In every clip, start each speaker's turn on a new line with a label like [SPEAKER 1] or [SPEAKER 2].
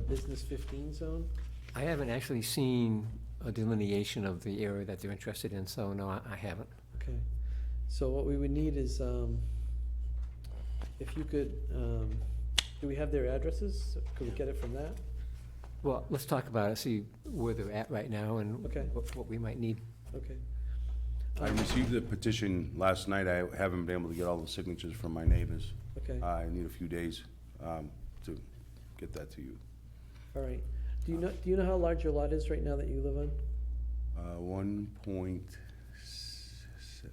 [SPEAKER 1] business fifteen zone?
[SPEAKER 2] I haven't actually seen a delineation of the area that they're interested in, so no, I- I haven't.
[SPEAKER 1] Okay, so what we would need is, um, if you could, um, do we have their addresses? Could we get it from that?
[SPEAKER 2] Well, let's talk about it, see where they're at right now and
[SPEAKER 1] Okay.
[SPEAKER 2] what what we might need.
[SPEAKER 1] Okay, Um,
[SPEAKER 3] I received the petition last night. I haven't been able to get all the signatures from my neighbors.
[SPEAKER 1] okay,
[SPEAKER 3] I need a few days um, to get that to you.
[SPEAKER 1] all right. Do you know, do you know how large your lot is right now that you live on?
[SPEAKER 3] Uh, One point,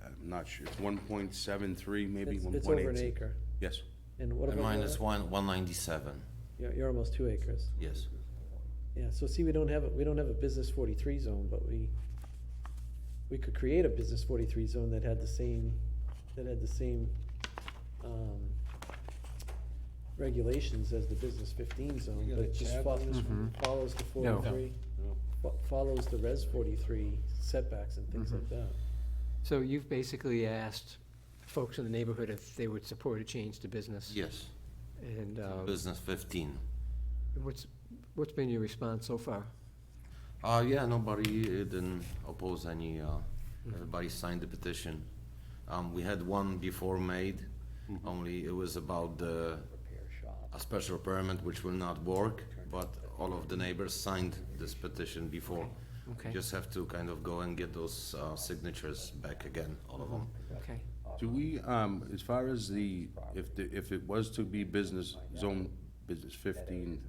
[SPEAKER 3] I'm not sure, one point seven three, maybe
[SPEAKER 1] It's-
[SPEAKER 3] one
[SPEAKER 1] It's
[SPEAKER 3] point
[SPEAKER 1] over an
[SPEAKER 3] eight.
[SPEAKER 1] acre.
[SPEAKER 3] Yes,
[SPEAKER 1] And what
[SPEAKER 4] And
[SPEAKER 1] about?
[SPEAKER 4] mine
[SPEAKER 1] your
[SPEAKER 4] is
[SPEAKER 1] lot?
[SPEAKER 4] one, one ninety-seven,
[SPEAKER 1] You're, you're almost two acres.
[SPEAKER 4] yes.
[SPEAKER 1] Yeah, so see, we don't have, a we don't have a business forty-three zone, but we, we could create a business forty-three zone that had the same, that had the same, um, regulations as the business fifteen zone,
[SPEAKER 5] You got
[SPEAKER 1] but
[SPEAKER 5] a
[SPEAKER 1] it just
[SPEAKER 5] tab on
[SPEAKER 1] follows,
[SPEAKER 2] this one?
[SPEAKER 1] follows the
[SPEAKER 2] No.
[SPEAKER 1] forty-three. fo- Follows the res forty-three setbacks and things
[SPEAKER 3] Mm-hmm.
[SPEAKER 1] like that.
[SPEAKER 2] So you've basically asked folks in the neighborhood if they would support a change to business?
[SPEAKER 4] Yes,
[SPEAKER 2] And uh,
[SPEAKER 4] business fifteen.
[SPEAKER 2] what's, what's been your response so far?
[SPEAKER 4] Uh, yeah, nobody uh, didn't oppose any, uh,
[SPEAKER 2] Um,
[SPEAKER 4] everybody signed the petition. Um, we had one before made, only it was about the, a special permit which will not work, but all of the neighbors signed this petition before.
[SPEAKER 2] Okay.
[SPEAKER 4] Just have to kind of go and get those, uh, signatures back again, all of them.
[SPEAKER 2] Okay.
[SPEAKER 3] do we, um, as far as the, if, the- if it was to be business zone, business fifteen,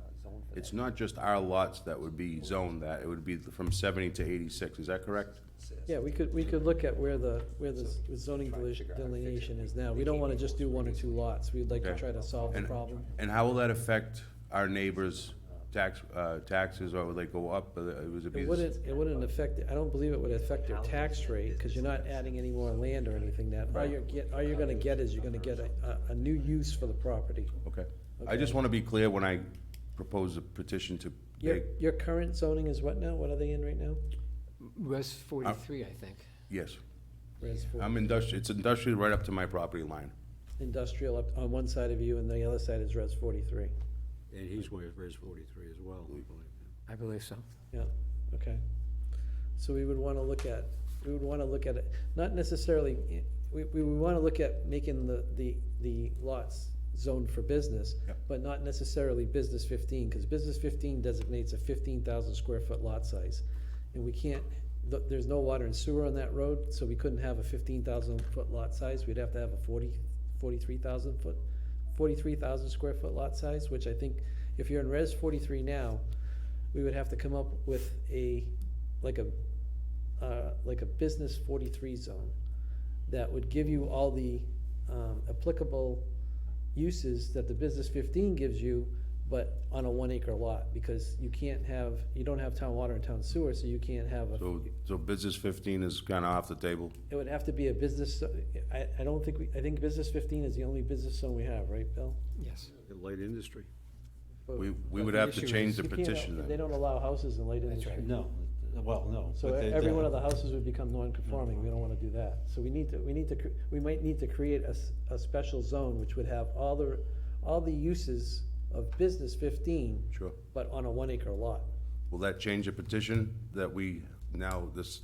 [SPEAKER 3] it's not just our lots that would be zoned that, it would be from seventy to eighty-six, is that correct?
[SPEAKER 1] Yeah, we could, we could look at where the, where the zoning deli- delineation is now. We don't wanna just do one or two lots. We'd like to
[SPEAKER 3] Okay.
[SPEAKER 1] try to solve the
[SPEAKER 3] And-
[SPEAKER 1] problem.
[SPEAKER 3] And how will that affect our neighbors' tax, uh, taxes, or will they go up? Or it was a
[SPEAKER 1] It wouldn't, it wouldn't affect, I don't believe it would affect their tax rate, because you're not adding any more land or anything that, all you're get, all you're gonna get is you're gonna get a, a, a new use for the property.
[SPEAKER 3] Okay. I just want to be clear when I propose a petition to,
[SPEAKER 1] Your,
[SPEAKER 3] make-
[SPEAKER 1] your current zoning is what now? What are they in right now?
[SPEAKER 2] Res 43, I think.
[SPEAKER 3] yes,
[SPEAKER 1] Res four.
[SPEAKER 3] I'm industrial, it's industrial right up to my property line.
[SPEAKER 1] Industrial up on one side of you, and the other side is res forty-three.
[SPEAKER 5] And he's wa- raised forty-three as well, I believe.
[SPEAKER 2] I believe so.
[SPEAKER 1] Yeah, okay. So we would wanna look at, we would wanna look at it, not necessarily, we, we would wanna look at making the, the, the lots zoned for business,
[SPEAKER 3] Yep.
[SPEAKER 1] but not necessarily business fifteen, cause business fifteen designates a fifteen thousand square foot lot size. And we can't, th- there's no water and sewer on that road, so we couldn't have a fifteen thousand foot lot size, we'd have to have a forty, forty-three thousand foot, forty-three thousand square foot lot size, which I think, if you're in res forty-three now, we would have to come up with a, like a, uh, like a business forty-three zone that would give you all the, um, applicable uses that the business fifteen gives you, but on a one-acre lot, because you can't have, you don't have town water and town sewer, so you can't have a,
[SPEAKER 3] So, so business fifteen is kind of off the table?
[SPEAKER 1] it would have to be a business, I, I don't think, we I think business fifteen is the only business zone we have, right, Bill?
[SPEAKER 2] Yes.
[SPEAKER 5] In Light industry.
[SPEAKER 1] But-
[SPEAKER 3] We, we
[SPEAKER 2] But
[SPEAKER 3] would
[SPEAKER 2] the
[SPEAKER 3] have to
[SPEAKER 2] issue
[SPEAKER 3] change
[SPEAKER 2] is
[SPEAKER 3] the
[SPEAKER 1] You can't-
[SPEAKER 3] petition
[SPEAKER 1] They
[SPEAKER 3] then.
[SPEAKER 1] don't allow houses in light industry.
[SPEAKER 5] No, well, no.
[SPEAKER 1] So e- every one of the houses would become non-conforming, we don't wanna do that. So we need to, we need to, cr- we might need to create a, s- a special zone which would have all the, all the uses of business fifteen,
[SPEAKER 3] Sure.
[SPEAKER 1] but on a one acre lot.
[SPEAKER 3] Will that change the petition that we now, this,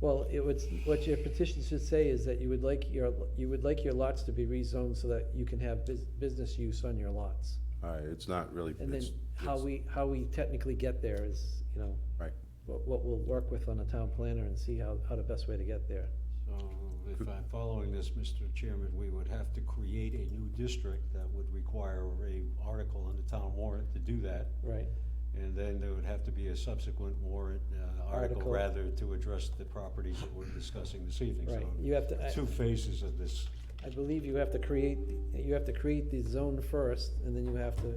[SPEAKER 1] Well, it would, what your petition should say is that you would like your, you would like your lots to be rezoned so that you can have bus- business use on your lots.
[SPEAKER 3] all right, it's not really,
[SPEAKER 1] And then
[SPEAKER 3] it's,
[SPEAKER 1] how we, how we technically get there is, you know,
[SPEAKER 3] right.
[SPEAKER 1] what, what we'll work with on a town planner and see how, how the best way to get there.
[SPEAKER 5] So if I'm following this, Mr. Chairman, we would have to create a new district that would require a article on the town warrant to do that.
[SPEAKER 1] Right,
[SPEAKER 5] And then there would have to be a subsequent warrant, uh,
[SPEAKER 1] Article.
[SPEAKER 5] article rather, to address the properties that we're discussing this evening.
[SPEAKER 1] right.
[SPEAKER 5] So
[SPEAKER 1] You have to. I-
[SPEAKER 5] Two phases of this.
[SPEAKER 1] I believe you have to create, you have to create the zone first, and then you have to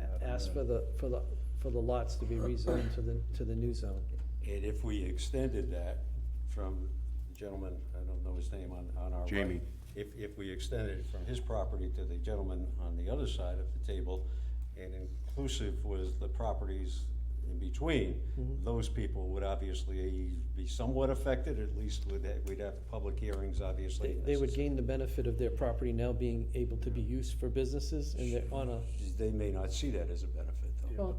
[SPEAKER 1] a- ask for the, for the, for the lots to be rezoned to the, to the new zone.
[SPEAKER 5] And if we extended that from the gentleman, I don't know his name, on, on our right.
[SPEAKER 3] Jamie.
[SPEAKER 5] If, if we extended it from his property to the gentleman on the other side of the table, and inclusive was the properties in between,
[SPEAKER 1] Mm-hmm.
[SPEAKER 5] those people would obviously be somewhat affected, at least would, ha- we'd have public hearings, obviously.
[SPEAKER 1] They,
[SPEAKER 5] and
[SPEAKER 1] they would
[SPEAKER 5] that's-
[SPEAKER 1] gain the benefit of their property now being able to be used for businesses, and they're on a,
[SPEAKER 5] They may not see that as a benefit, though.
[SPEAKER 1] Well,